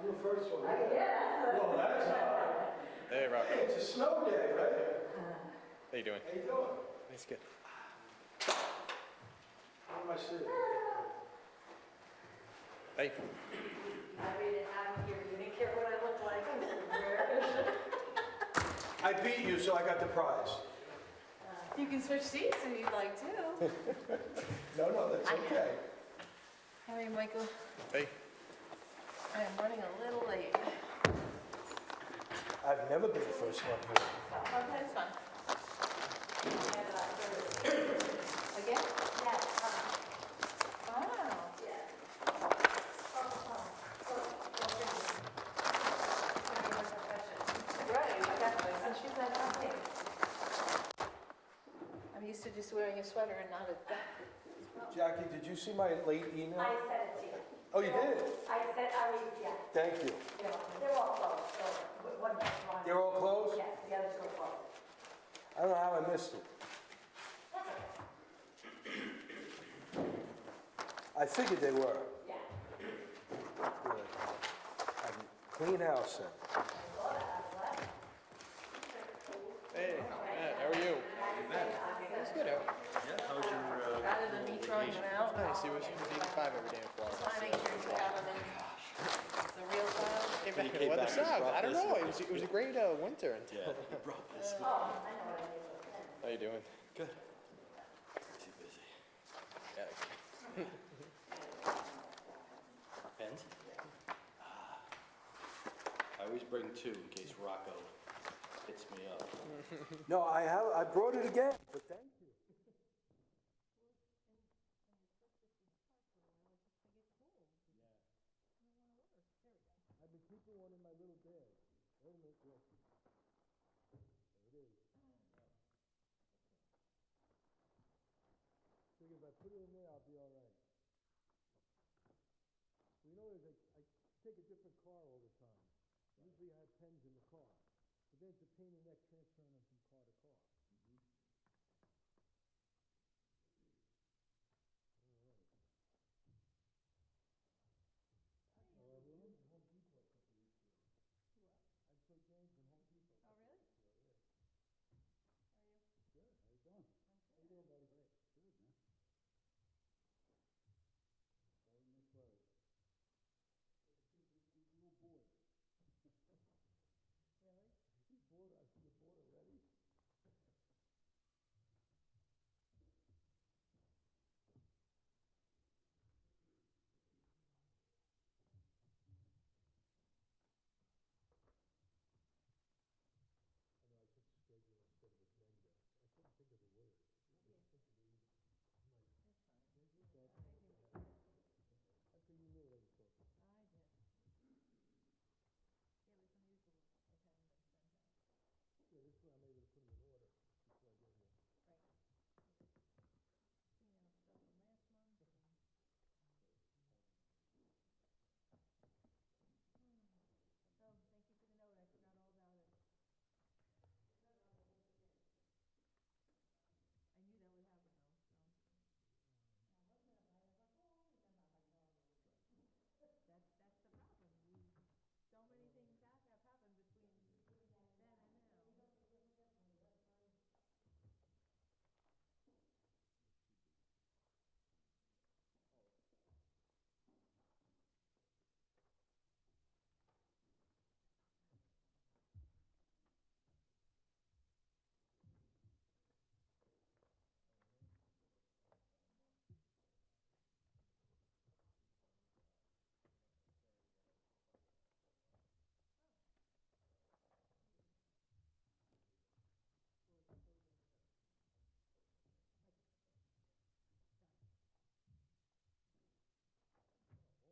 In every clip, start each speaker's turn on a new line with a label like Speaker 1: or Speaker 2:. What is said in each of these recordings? Speaker 1: I'm the first one.
Speaker 2: Yeah,
Speaker 1: Well, that's hard.
Speaker 3: Hey, Rocco.
Speaker 1: It's a snow day, right?
Speaker 3: How you doing?
Speaker 1: How you doing?
Speaker 3: It's good.
Speaker 1: How am I sitting?
Speaker 2: I
Speaker 3: Hey.
Speaker 2: read it out of here, you didn't care what I looked like. Where? Ah.
Speaker 1: I beat you, so I got the prize.
Speaker 4: You can switch seats if you'd like to.
Speaker 1: No, no, that's okay.
Speaker 4: Harry, Michael,
Speaker 3: Hey.
Speaker 4: I am running a little late.
Speaker 1: I've never been first one here.
Speaker 4: Okay, it's fine. Again? Wow. Right, exactly. So she's like, okay. I'm used to just wearing a sweater and not a
Speaker 1: Jackie, did you see my late email?
Speaker 2: I sent it to you.
Speaker 1: Oh, you did?
Speaker 2: I said, I mean, yeah,
Speaker 1: Thank you.
Speaker 2: they're all- they're all closed, so one, one.
Speaker 1: They're all closed?
Speaker 2: Yes, the others are closed.
Speaker 1: I don't know how I missed it. I figured they were.
Speaker 2: Yeah.
Speaker 1: Good. I mean, Clean house then.
Speaker 3: Hey. Matt, how are you? It's good out.
Speaker 4: Rather than me throwing them out,
Speaker 3: Nice. It was 85 every day
Speaker 4: I
Speaker 3: in
Speaker 4: want to make
Speaker 3: Florida.
Speaker 4: sure you have them in the real files.
Speaker 3: Came back in the weather south. I don't know. It was, it was a great uh, winter. Until How you doing? Good. Too busy.
Speaker 5: Pens? Ah. I always bring two in case Rocco hits me up.
Speaker 1: No, I have, I brought it again, but thank you. I've been keeping one in my little bag. Wait a minute, wait. There it is. Think if I put it in there, I'll be all right. You know, there's a- I take a different car all the time. Usually I have pens in the car. But then it's a pain in the neck transferring them from car to car.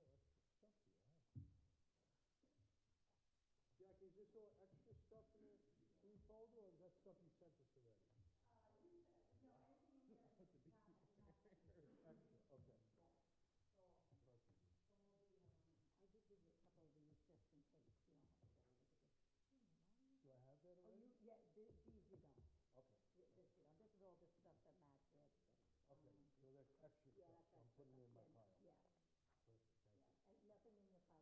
Speaker 1: Jackie, is this all extra stuff in the green folder, or is that stuff you sent us already?